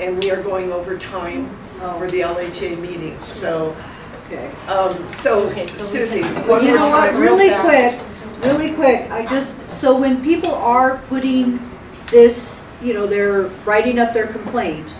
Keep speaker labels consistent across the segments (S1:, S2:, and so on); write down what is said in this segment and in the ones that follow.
S1: and we are going over time for the LHA meeting, so,
S2: Okay.
S1: um, so
S3: Okay, so we
S1: Susie,
S3: can-
S1: one
S2: You
S1: more
S2: know what,
S1: time, real
S2: really
S1: fast.
S2: quick, really quick, I just, so when people are putting this, you know, they're writing up their complaint,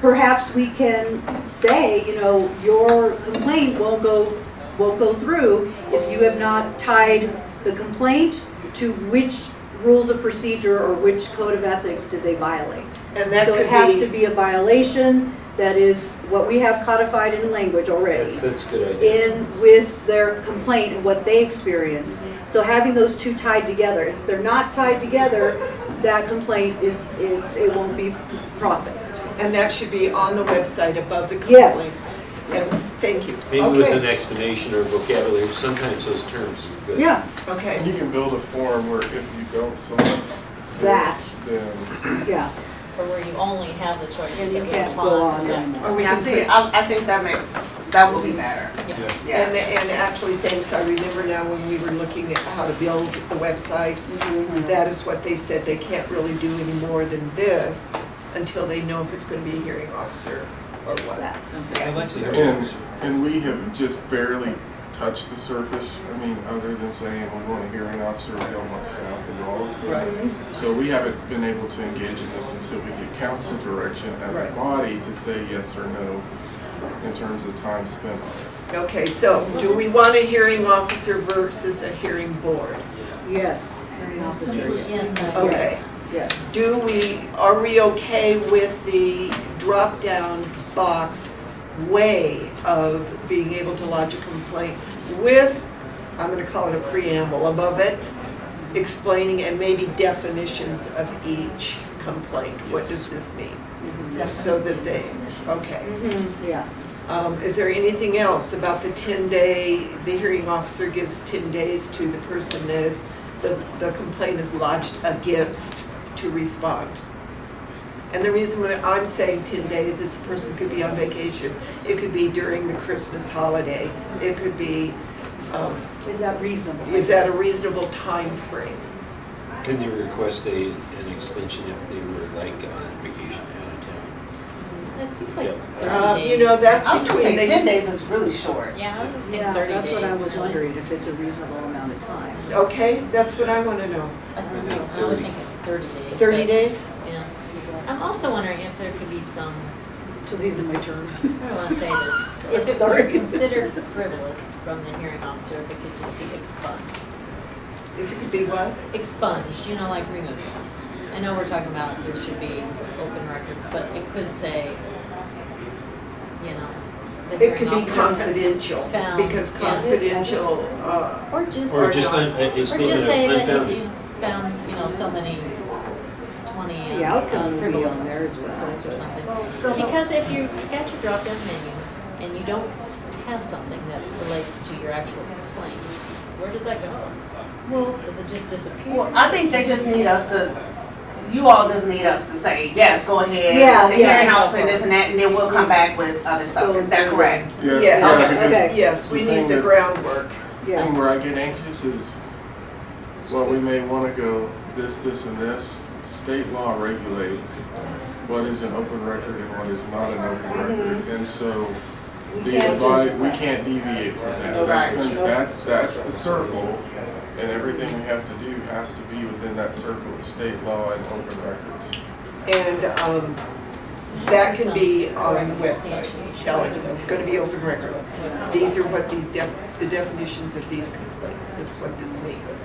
S2: perhaps we can say, you know, your complaint won't go, won't go through if you have not tied the complaint to which rules of procedure or which code of ethics did they violate.
S1: And that
S2: So it has to
S1: could be,
S2: be a violation that is what we have codified in language already
S4: That's, that's a good idea.
S2: in with their complaint and what they experienced. So having those two tied together, if they're not tied together, that complaint is, it's, it won't be processed.
S1: and that should be on the website above the
S2: Yes.
S1: complaint. Yes. Thank you.
S4: Maybe with an
S1: Okay,
S4: explanation or vocabulary, sometimes those terms are good.
S2: Yeah,
S5: And
S1: Okay,
S5: You can build a form where if you don't select
S2: That.
S5: this, then
S2: yeah,
S3: Or where you only have the choice
S2: and
S3: of
S2: you can't
S3: apply.
S2: go on
S3: Yeah.
S1: or
S2: anymore.
S1: we can see,
S6: See, I, I think that makes, that will be better.
S3: Yeah.
S1: and, and actually, thanks, I remember now when we were looking at how to build the website, that is what they said, they can't really do any more than this until they know if it's gonna be a hearing officer or what.
S2: That-
S5: And, and we have just barely touched the surface. I mean, other than saying we want a hearing officer, we don't want staff involved.
S1: Right.
S5: So we haven't been able to engage in this until we get council direction as a
S1: Right.
S5: body to say yes or no in terms of time spent on it.
S1: Okay, so do we want a hearing officer versus a hearing board?
S2: Yes, hearing officers,
S3: Yes, I
S2: Oh.
S3: agree.
S1: Okay,
S2: yes.
S1: do we, are we okay with the drop-down box way of being able to lodge a complaint with, I'm gonna call it a preamble above it, explaining and maybe definitions of each complaint? What does this mean? So that they, okay.
S2: Mhm, Yeah,
S1: Um, Is there anything else about the 10-day, the hearing officer gives 10 days to the person that is, the the complaint is lodged against to respond? And the reason why I'm saying 10 days is the person could be on vacation, it could be during the Christmas holiday, it could be, um,
S2: is that reasonable?
S1: is that a reasonable time frame?
S4: Can they request a, an extension if they were like on vacation out of town?
S3: That seems like
S4: Yeah.
S1: Um,
S3: thirty days.
S1: You know, that's
S6: I was gonna
S1: between,
S6: say, ten
S1: they,
S6: days is really short.
S3: Yeah, I would think
S2: Yeah,
S3: thirty days.
S2: that's what I was
S3: really.
S2: wondering, if it's a reasonable amount of time.
S1: okay, that's what I want to know.
S3: I think-
S4: think
S3: I was
S4: 30.
S3: thinking thirty days.
S1: 30
S3: but-
S1: days?
S3: Yeah. I'm also wondering if there could be some,
S2: To the end of my term.
S3: I don't wanna say this, if it were
S2: Sorry.
S3: considered frivolous from the hearing officer, if it could just be expunged.
S1: If it could be what?
S3: expunged, you know, like removed. I know we're talking about there should be open records, but it could say, you know, the
S1: It could
S3: hearing
S1: be
S3: officer
S1: confidential,
S3: found-
S1: because
S3: yeah.
S1: confidential, uh,
S3: Or just,
S4: Or
S3: or
S4: just
S1: not.
S4: un- uh, a- a statement
S3: just
S4: of
S3: say that
S4: unfounded.
S3: you found, you know, so many, twenty
S2: The
S3: uh,
S2: outcome will be on
S3: frivolous
S2: there as well.
S3: votes or something. Because if you got your drop-down menu and you don't have something that relates to your actual complaint, where does that go?
S6: Well,
S3: Does it just disappear?
S6: well, I think they just need us to, you all just need us to say, yes, go ahead.
S2: Yeah,
S6: The
S2: yeah.
S6: hearing officer, this and that, and then we'll come back with other stuff. Is that correct?
S5: Yeah,
S1: Yes.
S5: yeah, because
S2: Okay.
S1: yes, we
S5: The
S1: need
S5: thing
S1: the
S5: that-
S1: groundwork.
S5: The
S2: Yeah,
S5: thing where I get anxious is, well, we may want to go this, this, and this. State law regulates what is an open record and what is not an open record. And so the advice, we can't deviate from that. That's
S6: Right.
S5: been- That's, that's the circle, and everything we have to do has to be within that circle of state law and open records.
S1: And um, that can be on the website, tell it, it's going to be open records. These are what these, def- the definitions of these complaints, this is what this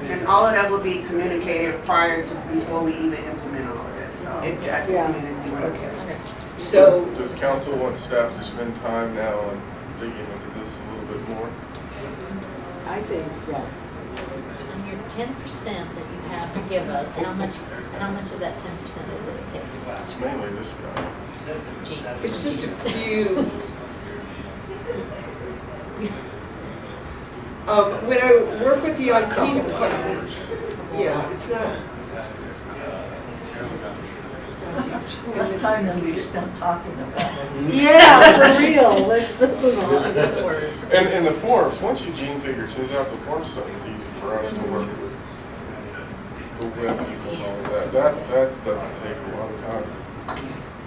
S6: And
S1: means.
S6: all of that will be communicated prior to, before we even implement all of this, so.
S1: Exactly.
S6: that's community work.
S1: Okay,
S3: Okay.
S1: so,
S5: Does council want staff to spend time now on digging into this a little bit more?
S2: I say yes.
S3: On your ten percent that you have to give us, how much, how much of that ten percent would this take?
S5: It's mainly this guy.
S3: Gee,
S1: it's just a few. Um, When I work with the IT department, yeah, it's not. it's not huge.
S7: Less time than we spent talking about it.
S2: Yeah, for real, let's move on.
S3: good words.
S5: And, and the forms, once Eugene figures his out, the form stuff is easy for us to work with. The web people and all of that, that, that doesn't take a lot of time.